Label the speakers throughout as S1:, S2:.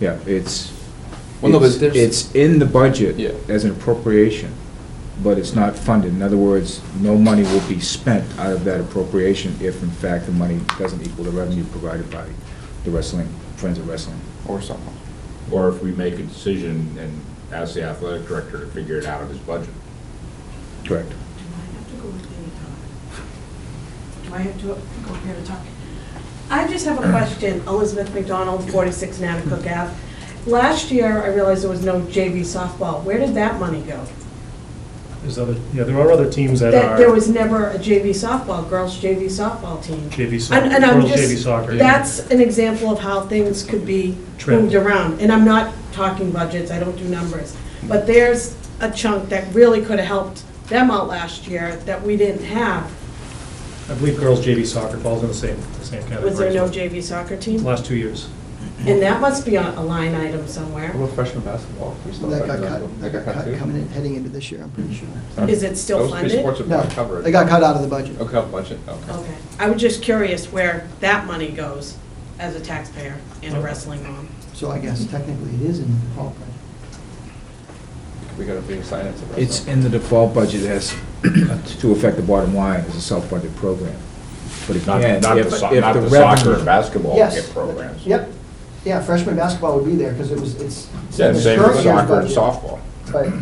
S1: Yeah, it's,
S2: Well, no, but
S1: it's
S2: there's-
S1: it's in the budget
S2: Yeah.
S1: as an appropriation, but it's not funded. In other words, no money will be spent out of that appropriation if in fact the money doesn't equal the revenue provided by the wrestling, Friends of Wrestling.
S2: or something.
S3: Or if we make a decision and ask the athletic director to figure it out of his budget.
S1: Correct.
S4: Do I have to go with Danny Talk? Do I have to go here to talk? I just have a question, Elizabeth McDonald, 46 Natick Ave. Last year, I realized there was no JV softball. Where did that money go?
S5: There's other, yeah, there are other teams that
S4: That there
S5: are
S4: was never a JV softball, girls JV softball team.
S5: JV
S4: And- and
S5: soccer,
S4: I'm
S5: world JV
S4: just,
S5: soccer.
S4: that's an example of how things could be
S5: Trend.
S4: moved around. And I'm not talking budgets, I don't do numbers. But there's a chunk that really could have helped them out last year that we didn't have.
S5: I believe girls JV soccer falls in the same, the same category.
S4: Was there
S5: as
S4: no
S5: well.
S4: JV soccer team?
S5: Last two years.
S4: And that must be on a line item somewhere.
S2: What about freshman basketball? We still
S6: That
S2: have
S6: got cut, that got cut coming in, heading into this year, I'm pretty sure.
S4: Is it still
S3: Those three sports
S4: funded? Oh.
S3: are
S6: No,
S3: not covered.
S6: they got cut out of the budget.
S3: Okay, budget,
S2: oh,
S3: okay.
S4: Okay. I was just curious where that money goes as a taxpayer and a wrestling mom.
S6: So I guess technically it is in the default budget.
S2: We gotta be science.
S1: It's in the default budget as, to affect the bottom line as a self-funded program. But
S3: Not,
S1: again,
S3: not the
S1: if, if
S3: so- not
S1: the
S3: the soccer and
S1: revenue.
S3: basketball
S6: Yes.
S3: programs.
S6: Yep, yeah, freshman basketball would be there, because it was, it's. it's in
S3: Yeah,
S6: the
S3: same
S6: current
S3: with
S6: year's
S3: soccer and
S6: budget,
S3: softball.
S6: But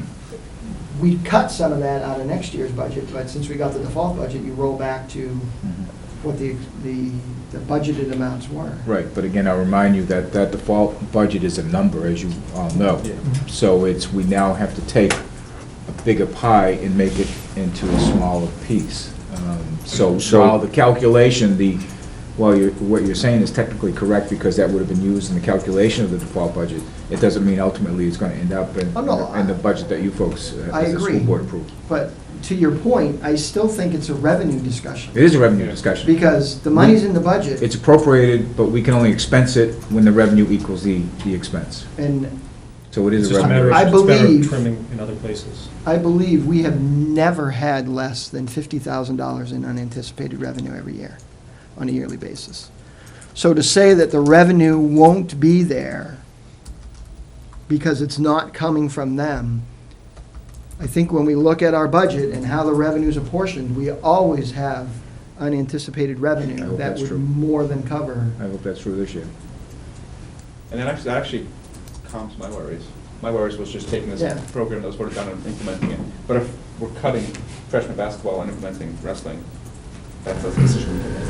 S6: we cut some of that out of next year's budget, but since we got the default budget, you roll back to
S1: Mhm.
S6: what the, the the budgeted amounts were.
S1: Right, but again, I'll remind you that that default budget is a number, as you all know. So it's, we now have to take a bigger pie and make it into a smaller piece. Um, So
S3: So-
S1: while the calculation, the, while you're, what you're saying is technically correct, because that would have been used in the calculation of the default budget, it doesn't mean ultimately it's gonna end up in,
S6: Oh, no, I-
S1: in the budget that you folks, uh,
S6: I
S1: as a school
S6: agree.
S1: board approve.
S6: But to your point, I still think it's a revenue discussion,
S1: It is a revenue discussion.
S6: because the money's in the budget.
S1: It's appropriated, but we can only expense it when the revenue equals the, the expense.
S6: And
S1: So it
S5: It's
S1: is a
S5: just a
S1: revenue.
S5: matter
S6: I
S5: of, it's better
S6: believe-
S5: trimming in other places.
S6: I believe we have never had less than $50,000 in unanticipated revenue every year, on a yearly basis. So to say that the revenue won't be there because it's not coming from them, I think when we look at our budget and how the revenue's apportioned, we always have unanticipated
S1: I
S6: revenue
S1: hope
S6: that
S1: that's
S6: would
S1: true.
S6: more than cover.
S1: I hope that's true this year.
S2: And then actually, that actually calms my worries. My worries was just taking
S6: Yeah.
S2: this program that was sort of done and implementing it. But if we're cutting freshman basketball and implementing wrestling, that's a decision. we can make.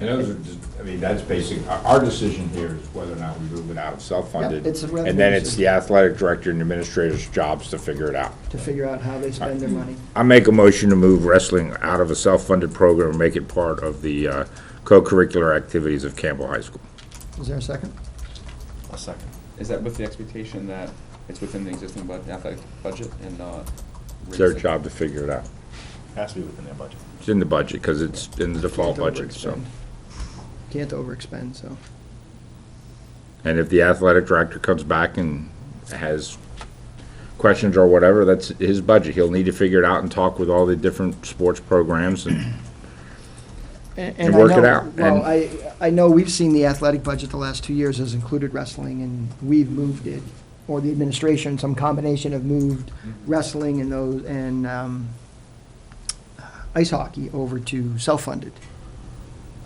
S3: And those are just, I mean, that's basic, our, our decision here is whether or not we move it out of self-funded.
S6: Yep, it's a revenue
S3: And then it's the
S6: decision.
S3: athletic director and administrator's jobs to figure it out.
S6: to figure out how they spend their money.
S3: I make a motion to move wrestling out of a self-funded program and make it part of the uh, co-curricular activities of Campbell High School.
S6: Is there a second?
S2: A second. Is that with the expectation that it's within the existing bud- athletic budget and not?
S3: It's their
S2: raising-
S3: job to figure it out.
S7: Has to be within their budget.
S3: It's in the budget, because it's in the default
S6: Can't
S3: budget, so.
S6: overexpend. Can't overexpend, so.
S3: And if the athletic director comes back and has questions or whatever, that's his budget. He'll need to figure it out and talk with all the different sports programs and
S6: And
S3: work
S6: I
S3: it
S6: know-
S3: out,
S6: Well,
S3: and-
S6: I, I know we've seen the athletic budget the last two years has included wrestling, and we've moved it, or the administration, some combination of moved wrestling and those, and um, ice hockey over to self-funded.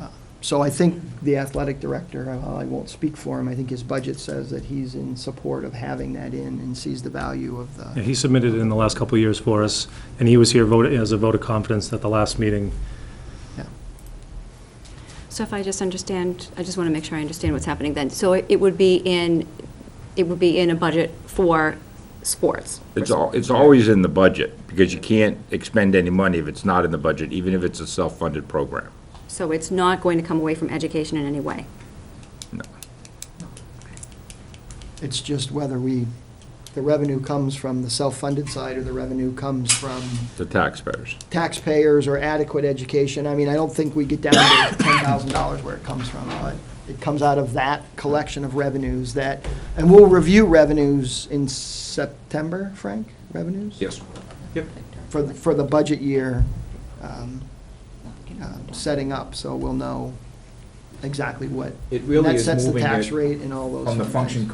S6: Uh, So I think the athletic director, while I won't speak for him, I think his budget says that he's in support of having that in and sees the value of the.
S5: Yeah, he submitted it in the last couple of years for us, and he was here vote- as a vote of confidence at the last meeting.
S8: So if I just understand, I just want to make sure I understand what's happening then. So it it would be in, it would be in a budget for sports?
S3: it's all, it's always in the budget, because you can't expend any money if it's not in the budget, even if it's a self-funded program.
S8: So it's not going to come away from education in any way?
S6: It's just whether we, the revenue comes from the self-funded side or the revenue comes from
S3: The taxpayers.
S6: taxpayers or adequate education. I mean, I don't think we get down to ten thousand dollars where it comes from, but it comes out of that collection of revenues that, and we'll review revenues in September, Frank, revenues?
S3: Yes.
S6: For, the- for the budget year, um, uh, setting up, so we'll know exactly what.
S1: It really
S6: and
S1: is
S6: That sets the
S1: moving
S6: tax
S1: it
S6: rate and all those.
S1: From the
S6: fun
S1: function
S6: things.